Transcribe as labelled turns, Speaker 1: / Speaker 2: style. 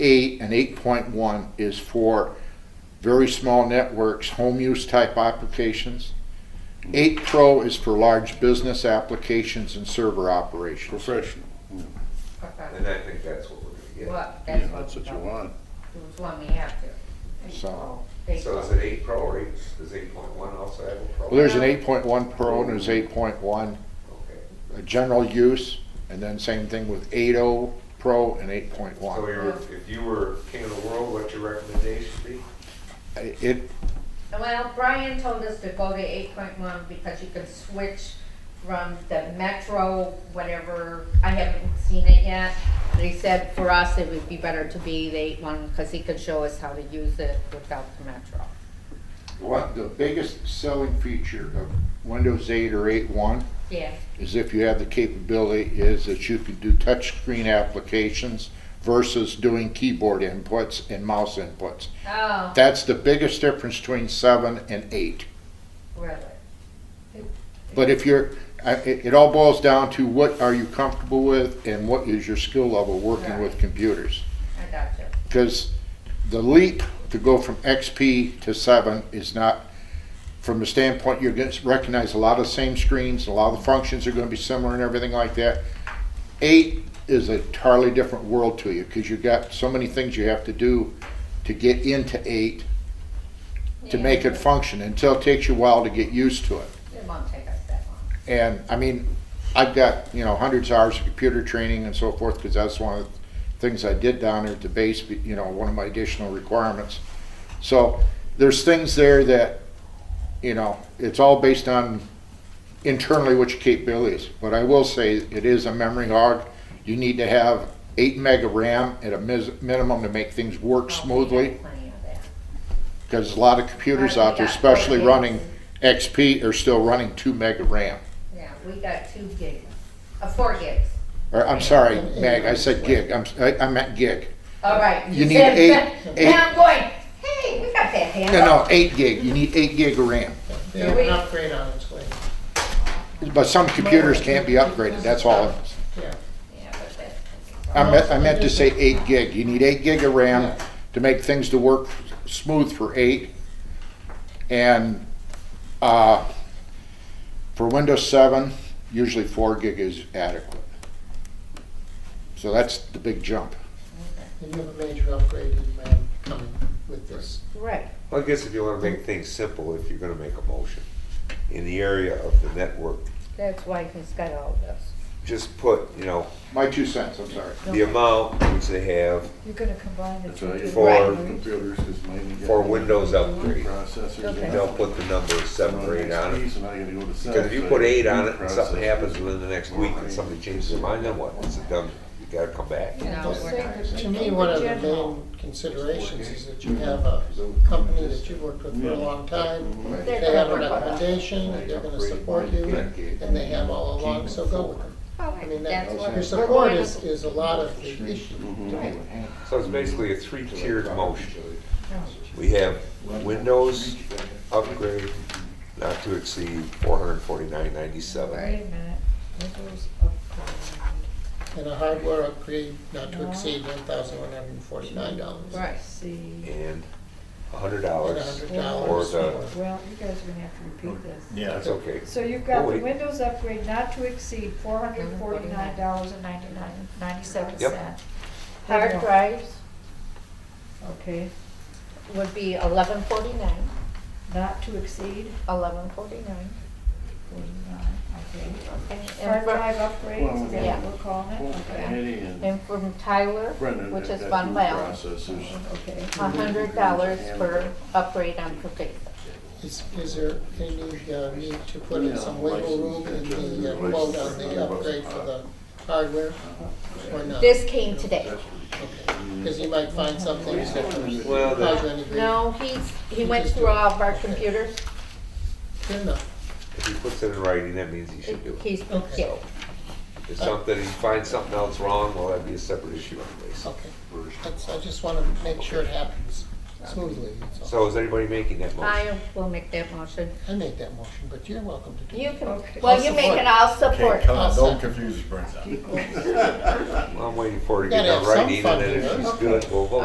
Speaker 1: eight and eight point one is for very small networks, home use type applications. Eight Pro is for large business applications and server operations.
Speaker 2: Professional,
Speaker 3: And I think that's what we're gonna
Speaker 4: Well,
Speaker 2: yeah,
Speaker 4: that's what.
Speaker 2: that's what you want.
Speaker 4: It was one we have to.
Speaker 1: So-
Speaker 4: They-
Speaker 3: get. So is it eight pro or eight, does eight point one also have a pro?
Speaker 1: Well, there's an eight point one Pro and there's eight point one uh,
Speaker 3: Okay,
Speaker 1: general use, and then same thing with eight O Pro and eight point
Speaker 3: so
Speaker 1: one.
Speaker 3: you're, if you were king of the world, what'd your recommendation be?
Speaker 1: It,
Speaker 4: Well, Brian told us to go to eight point one because you can switch from the metro, whatever, I haven't seen it yet. But he said for us, it would be better to be the eight one, cause he could show us how to use it without the metro.
Speaker 1: what, the biggest selling feature of Windows eight or eight one
Speaker 4: Yeah,
Speaker 1: is if you have the capability, is that you can do touchscreen applications versus doing keyboard inputs and mouse inputs.
Speaker 4: oh,
Speaker 1: That's the biggest difference between seven and eight.
Speaker 4: really,
Speaker 1: But if you're, I- it, it all boils down to what are you comfortable with and what is your skill level working with computers?
Speaker 4: I got you.
Speaker 1: Because the leap to go from XP to seven is not, from the standpoint, you're gonna recognize a lot of the same screens, a lot of the functions are gonna be similar and everything like that. Eight is a entirely different world to you, because you've got so many things you have to do to get into eight, to make it function, until it takes you a while to get used to it.
Speaker 4: It won't take us that long.
Speaker 1: And I mean, I've got, you know, hundreds of hours of computer training and so forth, because that's one of the things I did down there at the base, but, you know, one of my additional requirements. So there's things there that, you know, it's all based on internally what your capability is. But I will say, it is a memory hog. You need to have eight meg of RAM at a mis- minimum to make things work smoothly,
Speaker 4: Plenty of that.
Speaker 1: because a lot of computers out there, especially running XP, are still running two meg of RAM.
Speaker 4: Yeah, we got two gigs, uh, four gigs.
Speaker 1: Or, I'm sorry, Meg, I said gig, I'm, I, I meant gig.
Speaker 4: All right.
Speaker 1: You need
Speaker 4: said
Speaker 1: eight-
Speaker 4: that.
Speaker 1: eight-
Speaker 4: Now I'm going, hey, we got that handle.
Speaker 1: No, no, eight gig, you need eight gig of RAM.
Speaker 5: They have an upgrade on its way,
Speaker 1: But some computers can't be upgraded, that's all. it is.
Speaker 5: yeah.
Speaker 4: Yeah, but that-
Speaker 1: I meant, I meant to say eight gig, you need eight gig of RAM to make things to work smooth for eight. And, uh, for Windows seven, usually four gig is adequate. So that's the big jump.
Speaker 5: And you have a major upgrade in RAM coming with this.
Speaker 4: Right,
Speaker 3: Well, I guess if you wanna make things simple, if you're gonna make a motion in the area of the network,
Speaker 4: that's why he's got all this.
Speaker 3: just put, you know,
Speaker 1: My two cents, I'm sorry.
Speaker 3: the amount which they have
Speaker 6: You're gonna combine the two.
Speaker 3: For-
Speaker 6: Right.
Speaker 2: Computers is mainly. getting
Speaker 3: for Windows upgrade.
Speaker 2: Processors.
Speaker 6: Okay.
Speaker 2: and-
Speaker 3: They'll put the number seven or eight on it.
Speaker 2: Piece, and I gotta go to seven,
Speaker 3: Because if you
Speaker 2: so
Speaker 3: put
Speaker 2: I
Speaker 3: eight on
Speaker 2: do
Speaker 3: it and something
Speaker 2: processors.
Speaker 3: happens within the next week and somebody changes their mind, then what? It's a done, you gotta come back.
Speaker 4: No,
Speaker 5: Just
Speaker 4: we're not.
Speaker 5: To me, one of the main considerations is that you have a company that you've worked with for a long time. They have a recommendation, they're gonna support you, and they have all along, so go with them.
Speaker 4: All
Speaker 5: I
Speaker 4: right,
Speaker 5: mean,
Speaker 4: that's
Speaker 5: that,
Speaker 4: what.
Speaker 5: your support is, is a lot of the issue.
Speaker 3: So it's basically a three-tiered motion. We have Windows upgrade not to exceed four hundred forty-nine ninety-seven.
Speaker 6: Wait a minute, Windows upgrade.
Speaker 5: And a hardware upgrade not to exceed one thousand one hundred and forty-nine dollars.
Speaker 4: Right.
Speaker 6: See,
Speaker 3: And a hundred
Speaker 5: And a
Speaker 3: dollars.
Speaker 5: hundred
Speaker 3: Or
Speaker 5: dollars.
Speaker 3: the-
Speaker 6: well, you guys are gonna have to repeat this.
Speaker 3: That's okay.
Speaker 6: So you've
Speaker 3: Oh,
Speaker 6: got the
Speaker 3: wait.
Speaker 6: Windows upgrade not to exceed four hundred and forty-nine dollars and ninety-nine, ninety-seven
Speaker 3: Yep.
Speaker 6: cents.
Speaker 4: Hard drives
Speaker 6: Okay,
Speaker 4: would be eleven forty-nine,
Speaker 6: not to exceed
Speaker 4: eleven forty-nine.
Speaker 6: forty-nine, okay.
Speaker 4: And
Speaker 6: Hard
Speaker 4: from,
Speaker 6: drive upgrades, is that what we're calling it? Okay.
Speaker 2: Annie and
Speaker 4: and from Tyler,
Speaker 2: Brendan.
Speaker 4: which
Speaker 2: have
Speaker 4: is
Speaker 2: got
Speaker 4: Von
Speaker 2: two
Speaker 4: Bell,
Speaker 2: Processors.
Speaker 6: Okay.
Speaker 4: a hundred dollars per upgrade on Covina.
Speaker 5: Is, is there any uh, need to put in some wiggle room in the uh, quote on the upgrade for the hardware? Or not?
Speaker 4: This came today.
Speaker 5: Because you might find something that would
Speaker 3: Well, the-
Speaker 5: cause any grief.
Speaker 4: No, he's, he went through all of our computers.
Speaker 5: Good enough.
Speaker 3: If he puts it in writing, that means he should do it.
Speaker 4: He's, yeah.
Speaker 3: If something, he finds something else wrong, well, that'd be a separate issue anyways.
Speaker 5: Okay. That's, I just want to make sure it happens. smoothly, that's all.
Speaker 3: So is anybody making that motion?
Speaker 4: I will make that motion.
Speaker 5: I make that motion, but you're welcome to do it.
Speaker 4: You can,
Speaker 6: Okay.
Speaker 4: well, you make it, I'll support.
Speaker 7: Okay, come on,
Speaker 5: Awesome.
Speaker 7: don't confuse us, Brenda.
Speaker 3: Well, I'm waiting for her to
Speaker 5: Gotta
Speaker 3: get that
Speaker 5: have some
Speaker 3: writing, and then
Speaker 5: funding,
Speaker 3: if
Speaker 5: huh?
Speaker 3: she's good, we'll vote.